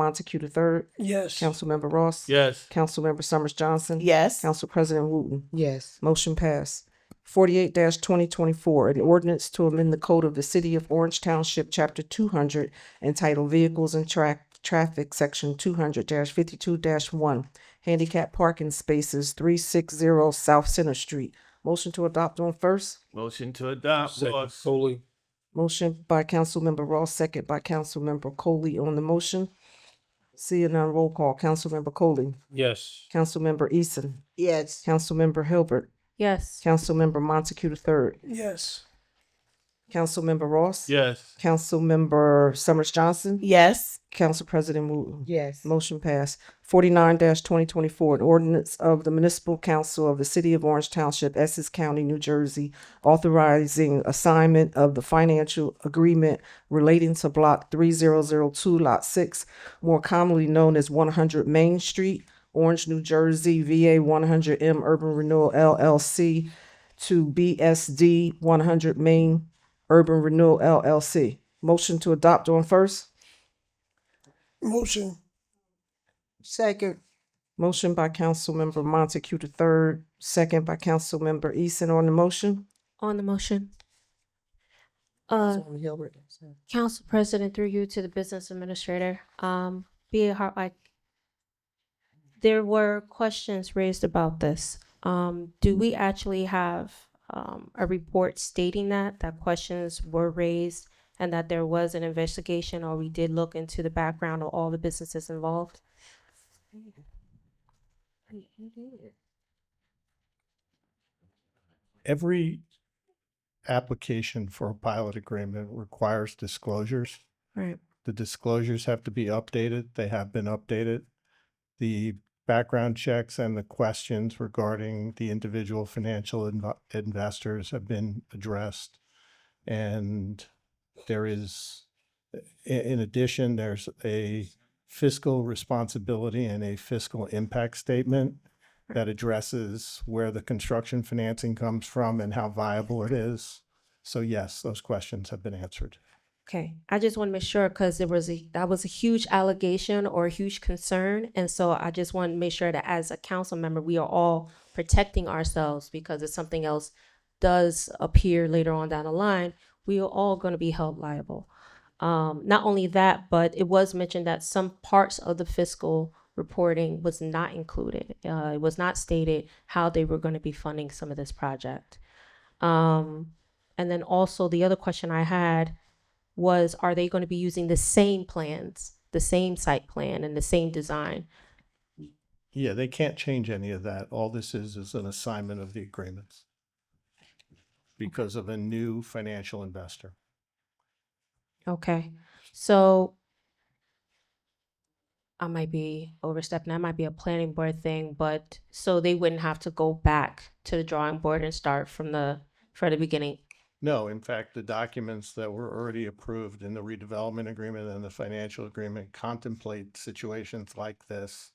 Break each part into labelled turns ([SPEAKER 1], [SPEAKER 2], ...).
[SPEAKER 1] Montague the third,
[SPEAKER 2] Yes.
[SPEAKER 1] Councilmember Ross.
[SPEAKER 3] Yes.
[SPEAKER 1] Councilmember Summers Johnson.
[SPEAKER 4] Yes.
[SPEAKER 1] Council President Wooten.
[SPEAKER 5] yes,
[SPEAKER 1] Motion passed. Forty-eight twenty twenty-four, an ordinance to amend the code of the city of Orange Township, chapter two hundred, entitled Vehicles and Track, Traffic, section two hundred fifty-two one, handicap parking spaces, three six zero South Center Street. Motion to adopt on first.
[SPEAKER 3] Motion to adopt
[SPEAKER 2] Second
[SPEAKER 3] Ross.
[SPEAKER 2] solely.
[SPEAKER 1] Motion by Councilmember Ross, second by Councilmember Coley on the motion. Seeing none, roll call. Councilmember Coley,
[SPEAKER 2] Yes.
[SPEAKER 1] Councilmember Eason,
[SPEAKER 4] Yes.
[SPEAKER 1] Councilmember Hilbert,
[SPEAKER 6] yes,
[SPEAKER 1] Councilmember Montague the third,
[SPEAKER 2] Yes.
[SPEAKER 1] Councilmember Ross.
[SPEAKER 3] Yes.
[SPEAKER 1] Councilmember Summers Johnson,
[SPEAKER 4] Yes.
[SPEAKER 1] Council President Wooten.
[SPEAKER 5] yes,
[SPEAKER 1] Motion passed. Forty-nine twenty twenty-four, an ordinance of the municipal council of the city of Orange Township, Essex County, New Jersey, authorizing assignment of the financial agreement relating to block three zero zero two, lot six, more commonly known as one hundred Main Street, Orange, New Jersey, VA one hundred M Urban Renewal LLC to BSD one hundred Main Urban Renewal LLC. Motion to adopt on first?
[SPEAKER 2] Motion.
[SPEAKER 4] Second.
[SPEAKER 1] Motion by Councilmember Montague the third, second by Councilmember Eason on the motion.
[SPEAKER 6] on the motion. Uh,
[SPEAKER 5] Councilwoman Hilbert, sorry.
[SPEAKER 6] Council President, through you to the business administrator, um, be it how I, there were questions raised about this. Um, do we actually have, um, a report stating that, that questions were raised and that there was an investigation or we did look into the background of all the businesses involved?
[SPEAKER 7] every application for a pilot agreement requires disclosures.
[SPEAKER 6] Right.
[SPEAKER 7] The disclosures have to be updated. They have been updated. The background checks and the questions regarding the individual financial inv- investors have been addressed. And there is, i- in addition, there's a fiscal responsibility and a fiscal impact statement that addresses where the construction financing comes from and how viable it is. So yes, those questions have been answered.
[SPEAKER 6] Okay, I just want to make sure because there was a, that was a huge allegation or a huge concern. And so I just want to make sure that as a council member, we are all protecting ourselves because if something else does appear later on down the line, we are all going to be held liable. Um, not only that, but it was mentioned that some parts of the fiscal reporting was not included. Uh, it was not stated how they were going to be funding some of this project. Um, and then also the other question I had was are they going to be using the same plans, the same site plan, and the same design?
[SPEAKER 7] Yeah, they can't change any of that. All this is, is an assignment of the agreements because of a new financial investor.
[SPEAKER 6] Okay, so I might be overstepping. That might be a planning board thing, but so they wouldn't have to go back to the drawing board and start from the from the beginning.
[SPEAKER 7] No, in fact, the documents that were already approved in the redevelopment agreement and the financial agreement contemplate situations like this.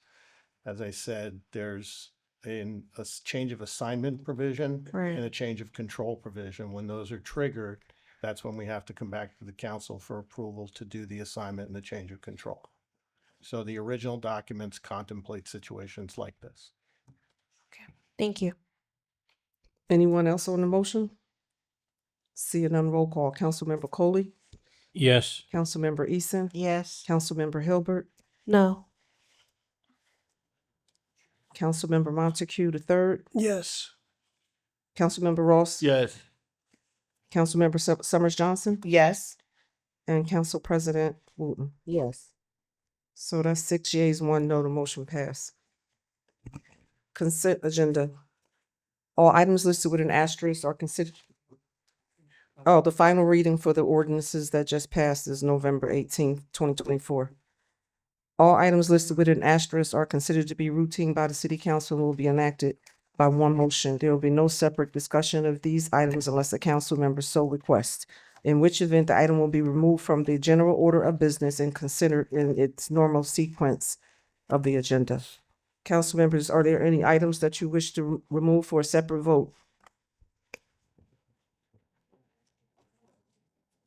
[SPEAKER 7] As I said, there's an, a s- change of assignment provision
[SPEAKER 6] Right.
[SPEAKER 7] and a change of control provision. When those are triggered, that's when we have to come back to the council for approval to do the assignment and the change of control. So the original documents contemplate situations like this.
[SPEAKER 6] Thank you.
[SPEAKER 1] Anyone else on the motion? Seeing none, roll call. Councilmember Coley,
[SPEAKER 2] Yes.
[SPEAKER 1] Councilmember Eason,
[SPEAKER 4] Yes.
[SPEAKER 1] Councilmember Hilbert,
[SPEAKER 6] No.
[SPEAKER 1] Councilmember Montague the third,
[SPEAKER 2] Yes.
[SPEAKER 1] Councilmember Ross.
[SPEAKER 3] Yes.
[SPEAKER 1] Councilmember Sum- Summers Johnson
[SPEAKER 4] Yes.
[SPEAKER 1] and Council President Wooten.
[SPEAKER 5] yes.
[SPEAKER 1] So that's six yeas, one no, the motion passed. Consent agenda. All items listed with an asterisk are considered. Oh, the final reading for the ordinances that just passed is November eighteenth, twenty twenty-four. All items listed with an asterisk are considered to be routine by the city council and will be enacted by one motion. There will be no separate discussion of these items unless a council member so requests in which event the item will be removed from the general order of business and considered in its normal sequence of the agenda. Council members, are there any items that you wish to re- remove for a separate vote?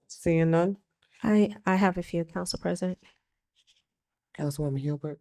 [SPEAKER 1] Seeing none?
[SPEAKER 6] I I have a few, Council President.
[SPEAKER 1] Councilwoman Hilbert.